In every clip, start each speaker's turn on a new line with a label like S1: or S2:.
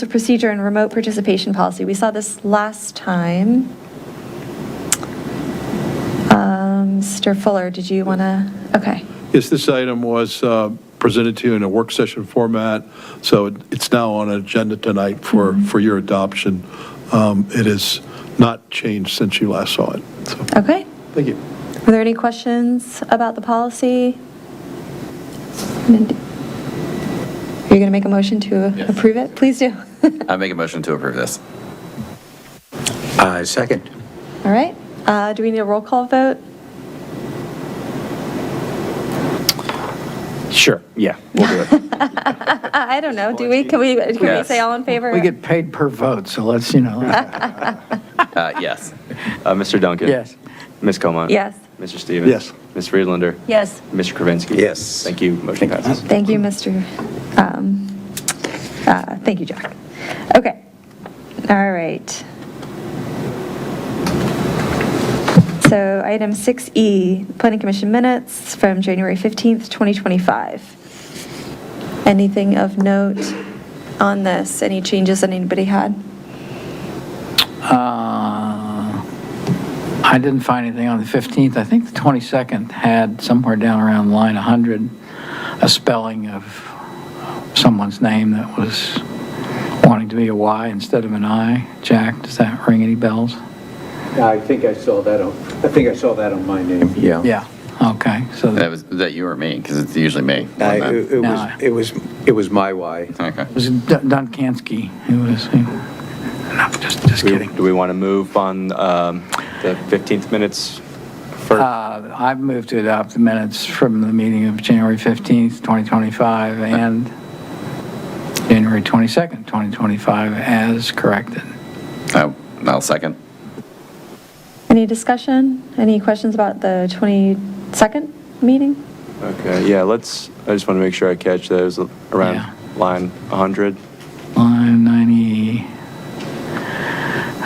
S1: So procedure and remote participation policy, we saw this last time. Um, Mr. Fuller, did you want to, okay.
S2: Yes, this item was uh, presented to you in a work session format, so it- it's now on agenda tonight for, for your adoption. Um, It has not changed since you last saw it, so,
S1: Okay.
S2: thank you.
S1: Are there any questions about the policy? Are you going to make a motion to
S3: Yes.
S1: approve it? Please do.
S3: I make a motion to approve this.
S4: I second.
S1: All right. Uh, Do we need a roll call vote?
S4: Sure, yeah, we'll do it.
S1: Uh, I I don't know. Do we? Can we, can we
S3: Yes.
S1: say all in favor?
S5: We get paid per vote, so let's, you know,
S3: Uh, yes.
S6: Uh, Mr. Duncan?
S5: yes.
S6: Ms. Comer?
S1: Yes.
S6: Mr. Stevens?
S2: Yes.
S6: Ms. Friedlander?
S1: Yes.
S6: Mr. Kravinsky?
S4: Yes.
S6: Thank you. Motion passes.
S1: Thank you, Mr., um, uh, thank you, Jack. Okay, all right. So item 6E, Planning Commission minutes from January 15th, 2025. Anything of note on this? Any changes that anybody had?
S5: Uh, I didn't find anything on the 15th. I think the 22nd had somewhere down around line 100, a spelling of someone's name that was wanting to be a Y instead of an I. Jack, does that ring any bells?
S7: I think I saw that on, I think I saw that on my name.
S4: Yeah.
S5: Yeah, okay, so
S3: That
S5: it
S3: was, that you or me, because it's usually me.
S4: Uh, It it was,
S5: No.
S4: it was, it was my why.
S3: Okay.
S5: was Dun- Dunkansky, it was, no, just, just
S6: Do we-
S5: kidding.
S6: Do we want to move on um, the 15th minutes first?
S5: Uh, I've moved to adopt the minutes from the meeting of January 15th, 2025, and January 22nd, 2025, as corrected.
S3: I- Oh, I'll second.
S1: Any discussion? Any questions about the 22nd meeting?
S6: Okay, yeah, let's, I just want to make sure I catch that. It was
S5: Yeah.
S6: around line 100.
S5: Line 90,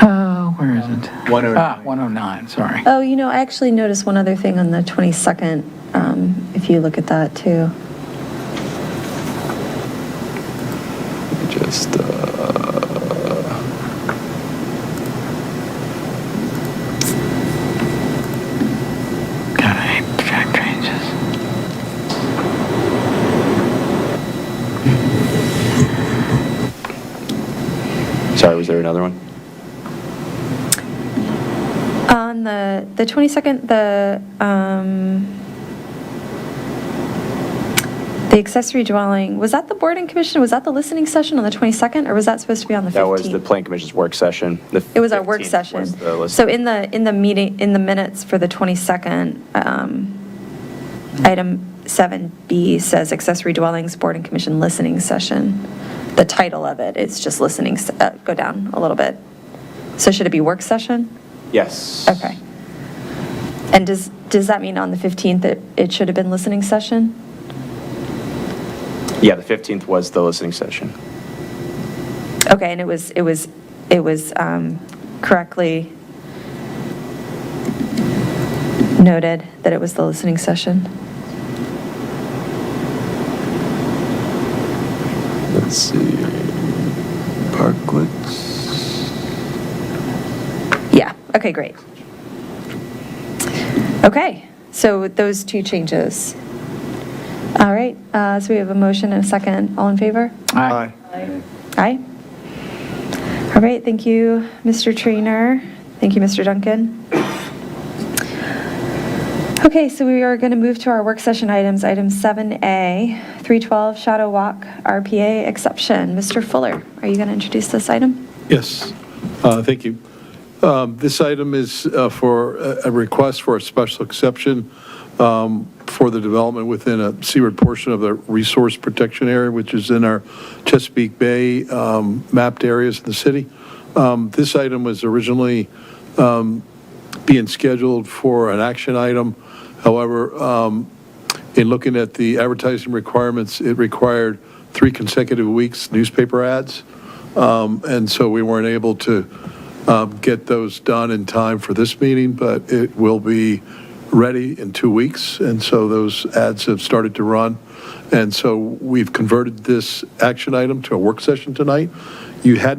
S5: oh, where is it?
S4: 109.
S5: Ah, 109, sorry.
S1: Oh, you know, I actually noticed one other thing on the 22nd, um, if you look at that, too.
S6: Just, uh,
S5: God, I hate track changes.
S6: sorry, was there another one?
S1: On the, the 22nd, the, um, the accessory dwelling, was that the board and commission, was that the listening session on the 22nd, or was that supposed to be on the 15th?
S6: That was the Plan Commission's work session. The
S1: It was our work
S6: 15th
S1: session.
S6: was the list.
S1: So in the, in the meeting, in the minutes for the 22nd, um, item 7B says accessory dwellings, board and commission listening session. The title of it, it's just listening, s- uh, go down a little bit. So should it be work session?
S6: Yes.
S1: Okay. And does, does that mean on the 15th that it should have been listening session?
S6: Yeah, the 15th was the listening session.
S1: Okay, and it was, it was, it was um, correctly noted that it was the listening session?
S6: Let's see. Parklets.
S1: Yeah, okay, great. Okay, so with those two changes. All right, uh, so we have a motion and a second. All in favor?
S5: Aye.
S1: Aye. All right, thank you, Mr. Trainer. Thank you, Mr. Duncan. Okay, so we are going to move to our work session items. Item 7A, 312 Shadow Walk RPA exception. Mr. Fuller, are you going to introduce this item?
S2: Yes, Uh, thank you. Um, This item is uh, for a a request for a special exception um, for the development within a seaward portion of the resource protection area, which is in our Chesapeake Bay um, mapped areas in the city. Um, This item was originally um, being scheduled for an action item. However, um, in looking at the advertising requirements, it required three consecutive weeks newspaper ads and so we weren't able to um, get those done in time for this meeting, but it will be ready in two weeks, and so those ads have started to run. And so we've converted this action item to a work session tonight, you had